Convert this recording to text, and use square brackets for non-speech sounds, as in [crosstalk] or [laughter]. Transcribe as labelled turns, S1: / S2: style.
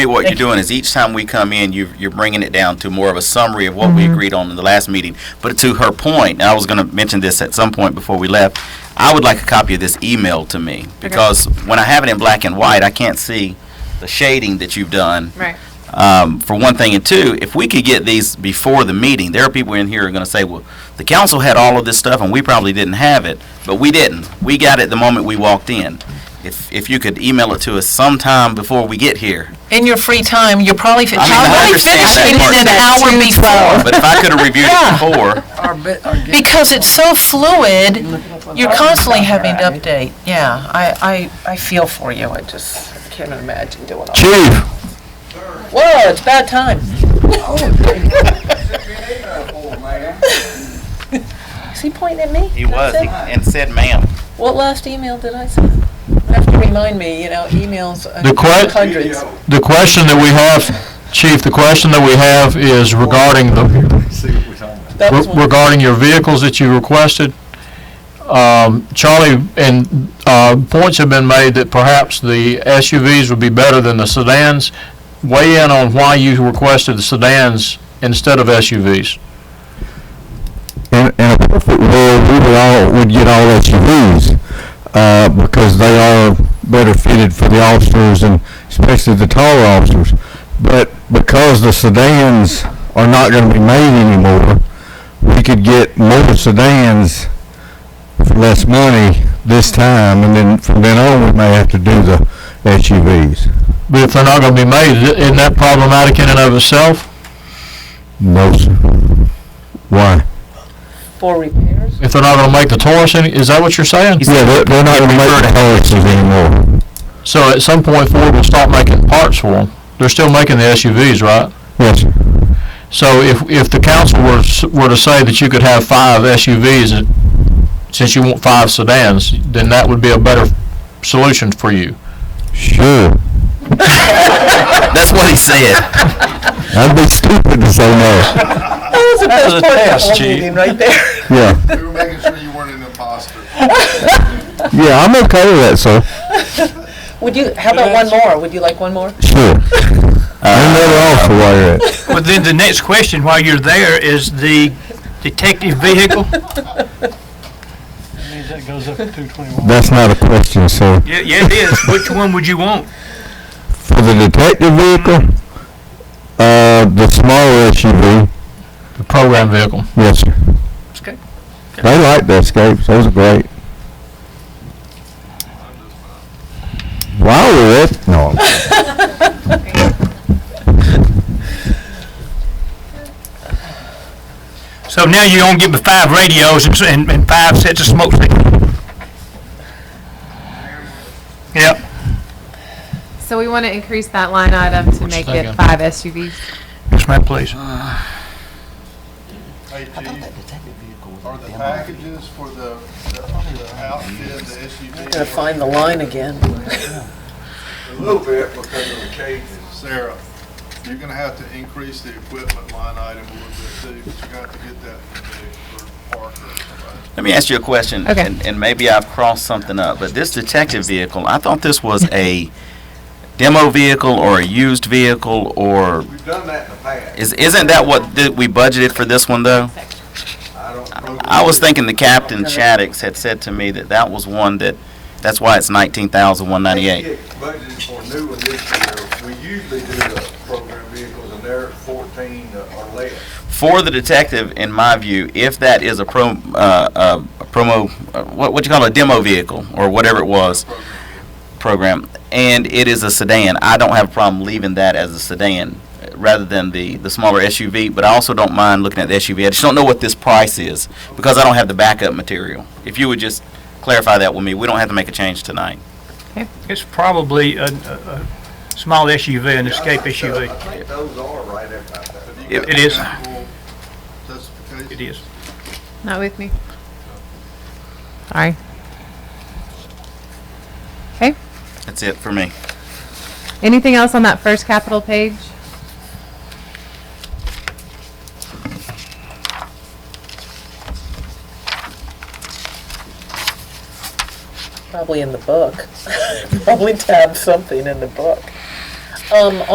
S1: me what you're doing is each time we come in, you you're bringing it down to more of a summary of what we agreed on in the last meeting. But to her point, and I was going to mention this at some point before we left, I would like a copy of this email to me because when I have it in black and white, I can't see the shading that you've done.
S2: Right.
S1: Um, for one thing, and two, if we could get these before the meeting, there are people in here who are going to say, "Well, the council had all of this stuff, and we probably didn't have it," but we didn't. We got it the moment we walked in. If if you could email it to us sometime before we get here,
S2: In your free time, you're probably, fi-
S1: I mean, I
S2: probably
S1: understand that
S2: finishing
S1: part.
S2: it an hour before.
S1: But if I could have reviewed it before,
S2: Because it's so fluid, you're constantly having to update. Yeah, I, I, I feel for you. I just can't imagine doing all that.
S3: Chief,
S2: Whoa, it's about time. [laughs] Is he pointing at me?
S1: he was he- and said, "Ma'am."
S2: What last email did I send? You Have to remind me, you know, emails, uh,
S3: The que-
S2: hundreds.
S3: the question that we have, Chief, the question that we have is regarding the,
S2: That was one.
S3: regarding your vehicles that you requested. Um, Charlie, and, uh, points have been made that perhaps the SUVs would be better than the sedans. Weigh in on why you requested the sedans instead of SUVs.
S4: in, in a perfect world, we would all, would get all SUVs, uh, because they are better fitted for the officers and especially the taller officers. But because the sedans are not gonna be made anymore, we could get more sedans for less money this time, and then from then on, we may have to do the SUVs.
S3: But if they're not gonna be made, i- isn't that problematic in and of itself?
S4: No, sir. Why?
S2: for repairs.
S3: If they're not gonna make the Taurus any, is that what you're saying?
S4: Yeah, they're, they're not gonna make the Taurus's anymore.
S3: So at some point Ford will stop making parts for them. They're still making the SUVs, right?
S4: Yes, sir.
S3: So if, if the council were, s- were to say that you could have five SUVs, and- since you want five sedans, then that would be a better solution for you.
S4: Sure.
S1: That's what he said.
S4: I'd be stupid to say no.
S2: That was the best part of the whole meeting right there.
S4: Yeah.
S5: We were making sure you weren't an imposter.
S1: [laughs]
S4: Yeah, I'm okay with that, sir.
S2: Would you, how about one more? Would you like one more?
S4: Sure.
S6: Uh,
S4: I'm never off for while you're at.
S6: Well, then the next question while you're there is the detective vehicle?
S4: That's not a question, sir.
S6: [laughs] Yeah, yeah, it is. Which one would you want?
S4: [laughs] For the detective vehicle, uh, the smaller SUV,
S3: The program vehicle.
S4: yes, sir.
S6: Okay.
S4: They like the escapes. Those are great. While we're at, no.
S6: So now you're gonna give me five radios and s- and, and five sets of smoke signals. Yep.
S7: So we want to increase that line item to make
S3: thinking?
S7: it five SUVs.
S6: Yes, ma'am, please.
S5: Hey, Chief, are the packages for the, the the outfit, the SUV?
S2: Gotta find the line again.
S5: A little bit because of the cages. Sarah, you're gonna have to increase the equipment line item a little bit too, but you got to get that from Dick or Parker or somebody.
S1: Let me ask you a question.
S7: Okay.
S1: And, and maybe I've crossed something up, but this detective vehicle, I thought this was a demo vehicle or a used vehicle or
S5: We've done that in the past.
S1: is isn't that what th- we budgeted for this one though?
S5: I don't.
S1: I was thinking the captain Shaddix had said to me that that was one that that's why it's nineteen thousand one ninety eight.
S5: Budgeted for new one this year. We usually do the program vehicles and they're fourteen or less.
S1: For the detective, in my view, if that is a pro uh, uh, a promo uh, what what you call it, a demo vehicle or whatever it was, program, and it is a sedan. I don't have a problem leaving that as a sedan uh, rather than the, the smaller SUV, but I also don't mind looking at the SUV. I just don't know what this price is because I don't have the backup material. If you would just clarify that with me, we don't have to make a change tonight.
S6: It's probably a, a, a small SUV, an escape SUV.
S5: think those are right about that.
S1: It-
S6: it is.
S5: Justification.
S6: It is.
S7: Not with me. Sorry.
S1: That's it for me.
S7: Anything else on that first capital page?
S2: [laughs] Probably in the book. Probably tab something in the book. Um,